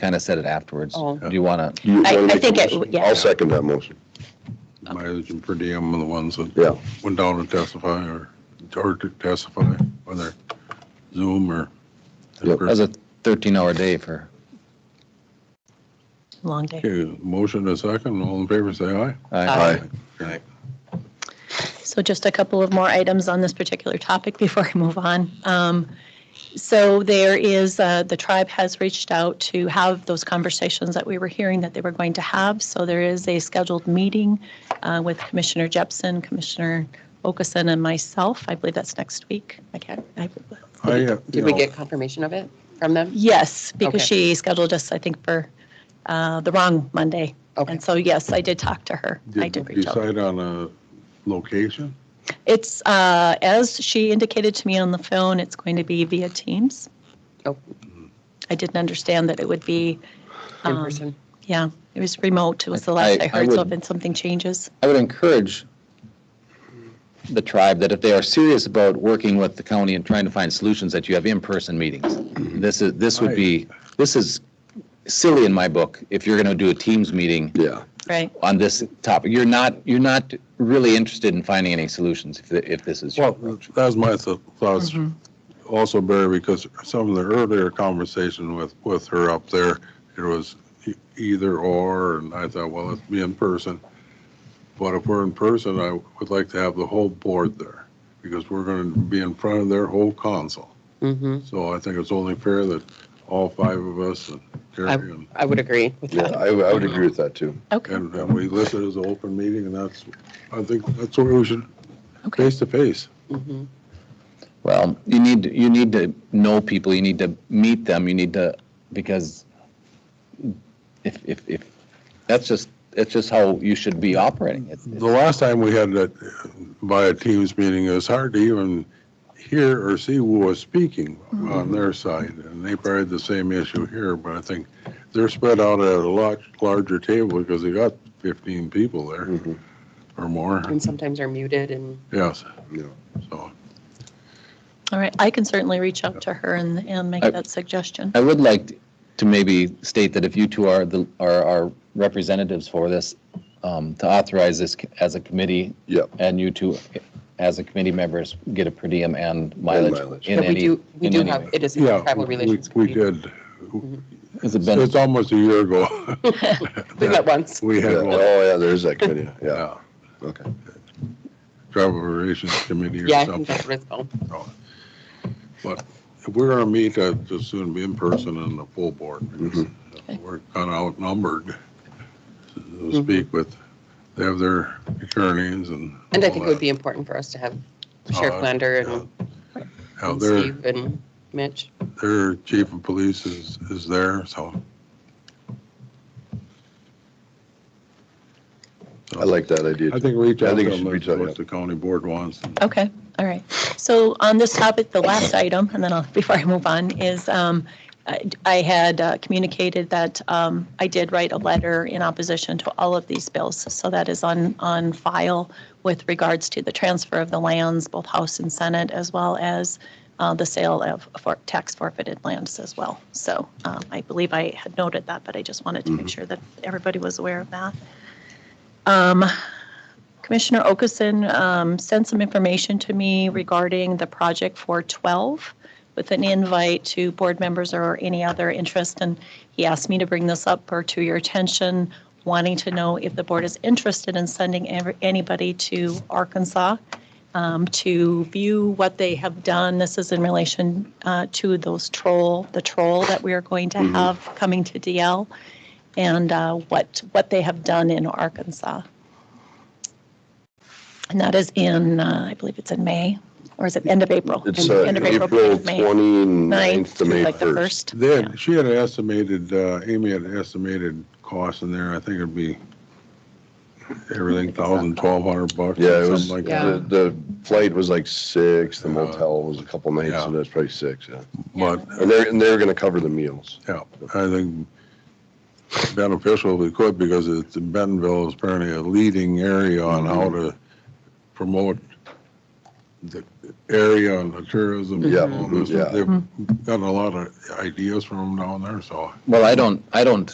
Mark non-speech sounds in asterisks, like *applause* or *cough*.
kind of said it afterwards. Oh. Do you want to, You I- wanna I make a think it- motion? yeah. I'll second that motion. mileage and per diem are the ones that Yeah. went down to testify or, or to testify, whether Zoom or. Yep. that was a 13-hour day for, Long day. Okay, motion a second, all in favor, say aye. I- Aye. Aye. So just a couple of more items on this particular topic *laughs* before I move on. Um, So there is, uh, the tribe has reached out to have those conversations that we were hearing that they were going to have. So there is a scheduled meeting uh, with Commissioner Jepson, Commissioner Okason, and myself. I believe that's next week. I can't, I I, uh, you Did we know, get confirmation of it from them? Yes, because Okay. she scheduled us, I think, for uh, the wrong Monday. Okay. And so, yes, I did talk to her. I Did did you reach out. decide on a location? It's, uh, as she indicated to me on the phone, it's going to be via Teams. Oh. I didn't understand that it would be, In um, person? yeah, it was remote, it was the I- last I I heard, so would- if it's something changes. I would encourage the tribe that if they are serious about working with the county and trying to find solutions, that you have in-person meetings. This is, this would be, this is silly in my book, if you're going to do a Teams meeting Yeah. Right. on this topic. You're not, you're not really interested in finding any solutions if, th- if this is. your Well, that's my th- thoughts Mm-hmm. also, Barry, because some of the earlier conversation with, with her up there, it was e- either or, and I thought, well, let's be in person. But if we're in person, I would like to have the whole board there, because we're going to be in front of their whole council. Mm-hmm. So I think it's only fair that all five of us and Terry and, I would agree with Yeah, that. I, I would agree with that too. Okay, and and we list it as an open meeting, and that's, I think that's what we should, okay. face to face. Mhm. Well, you need, you need to know people, you need to meet them, you need to, because if, if, if, that's just, that's just how you should be operating. It's- The last time we had that uh, via Teams meeting, it was hard to even hear or see who was speaking on their side. And they probably had the same issue here, but I think they're spread out at a lot larger table because they got 15 people there Mhm. or more. Mm-hmm. And sometimes are muted and, Yes, Yeah. so. All right, I can certainly reach out to her and, and make I- that suggestion. I would like to maybe state that if you two are the, are our representatives for this, um, to authorize this as a committee Yep. and you two as a committee members get a per diem and mileage mileage. in but we any, do, we in do any have, way. it is a Yeah, tribal we- relations we committee. did. Has it been, It's almost a year ago. *laughs* *laughs* We met once. We Yeah. had one. Oh, yeah, there is that committee. Yeah, Yeah, okay. Travel Relations Committee or Yeah, I something. think that's what it's called. But if we're going to meet, I'd just soon be in person and the full board. Mm-hmm. because We're kind of outnumbered, so Mm-hmm. to speak, with, they have their attorneys and. And I all think it would that. be important for us to have Oh, Sheriff I- Lander yeah. and- Now, and their, Steve and Mitch. their chief of police is, is there, so. I like that idea. I think reach I out think to it should them, reach that's out, yeah. what the county board wants. Okay, all right. So on this topic, the last item, and then I'll, *laughs* before I move on, is um, I I had uh, communicated that um, I did write a letter in opposition to all of these bills. So that is on, on file with regards to the transfer of the lands, both House and Senate, as well as uh, the sale of for- tax forfeited lands as well. So um, I believe I had noted that, but I just wanted to make sure that everybody was aware of that. Um, Commissioner Okason um, sent some information to me regarding the project for 12 with an invite to board members or any other interest. And he asked me to bring this up or to your attention, wanting to know if the board is interested in sending ever- anybody to Arkansas um, to view what they have done. This is in relation uh, to those troll, the troll that we are going to have coming to DL and uh, what, what they have done in Arkansas. And that is in, uh, I believe it's in May, or is it end of April? It's End- uh, end of April beginning of May. 29th Ninth, to May like the 1st. first. They had, she had estimated, uh, Amy had estimated costs in there, I think it'd be everything thousand, twelve hundred bucks. or Yeah, it was, something like Yeah. that. the, the flight was like six, the Yeah. motel was a couple nights, Yeah. so that's probably six, yeah. But, And they're, and they're gonna cover the meals. yeah, I think beneficial if we could, because it's, Bentonville is Mm-hmm. apparently a leading area on how to promote the area and the tourism. and Yeah, Mm-hmm. all this. yeah. They've gotten a lot of ideas from them down there, so. Well, I don't, I don't